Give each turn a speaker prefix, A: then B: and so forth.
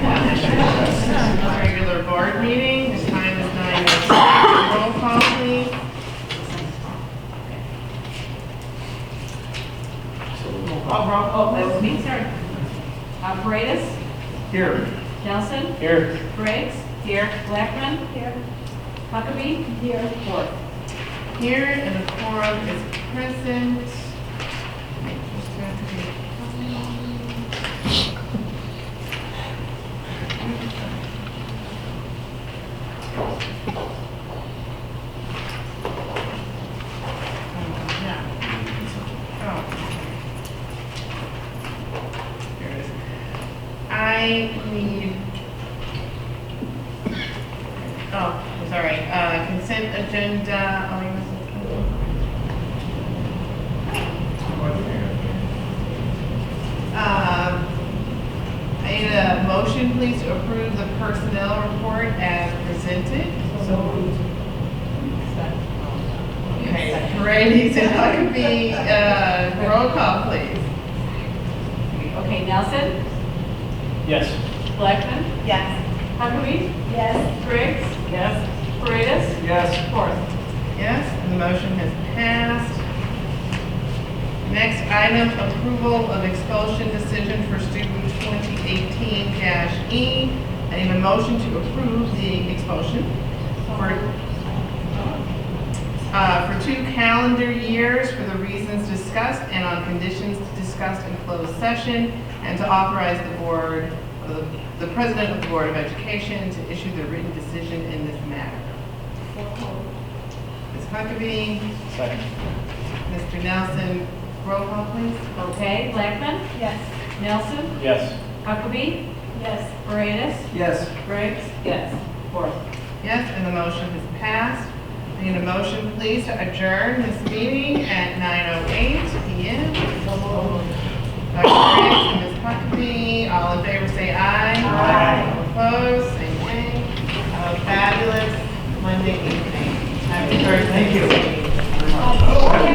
A: Oh,
B: Uh, Nelson,
C: Here.
B: Briggs, here, Blackman,
D: Here.
B: Huckabee,
D: Here.
B: Wolf.
A: Here, and the quorum is present. Just have to be- Yeah. Oh. Here it is. I need Oh, I'm sorry, uh, consent agenda, Oh, I'll leave this- Um, I need a motion, please, to approve the personnel report as presented.
D: So moved.
A: Okay, Paredes and Huckabee, uh, roll call, please.
B: Okay, Nelson,
C: Yes.
B: Blackman,
D: Yes.
B: Huckabee,
D: Yes.
B: Briggs. Yes. Paredes,
C: Yes.
B: Wolf.
A: Yes, and the motion has passed. Next item, approval of expulsion decision for student 2018-E. I need a motion to approve the expulsion for, uh, for two calendar years for the reasons discussed and on conditions discussed in closed session, and to authorize the board, the the president of the Board of Education to issue the written decision in this matter. Ms. Huckabee,
C: Second.
A: Mr. Nelson, roll call, please.
B: Okay, Blackman,
D: Yes.
B: Nelson,
C: Yes.
B: Huckabee,
D: Yes.
B: Paredes,
C: Yes.
B: Briggs. Yes. Wolf.
A: Yes, and the motion is passed. I Need a motion, please, to adjourn this meeting at 9:08 PM. Dr. Briggs and Ms. Huckabee, all in favor, say aye.
C: Aye.
A: Opposed, say nay. Have a Fabulous Monday evening. Happy Thursday. Thank you.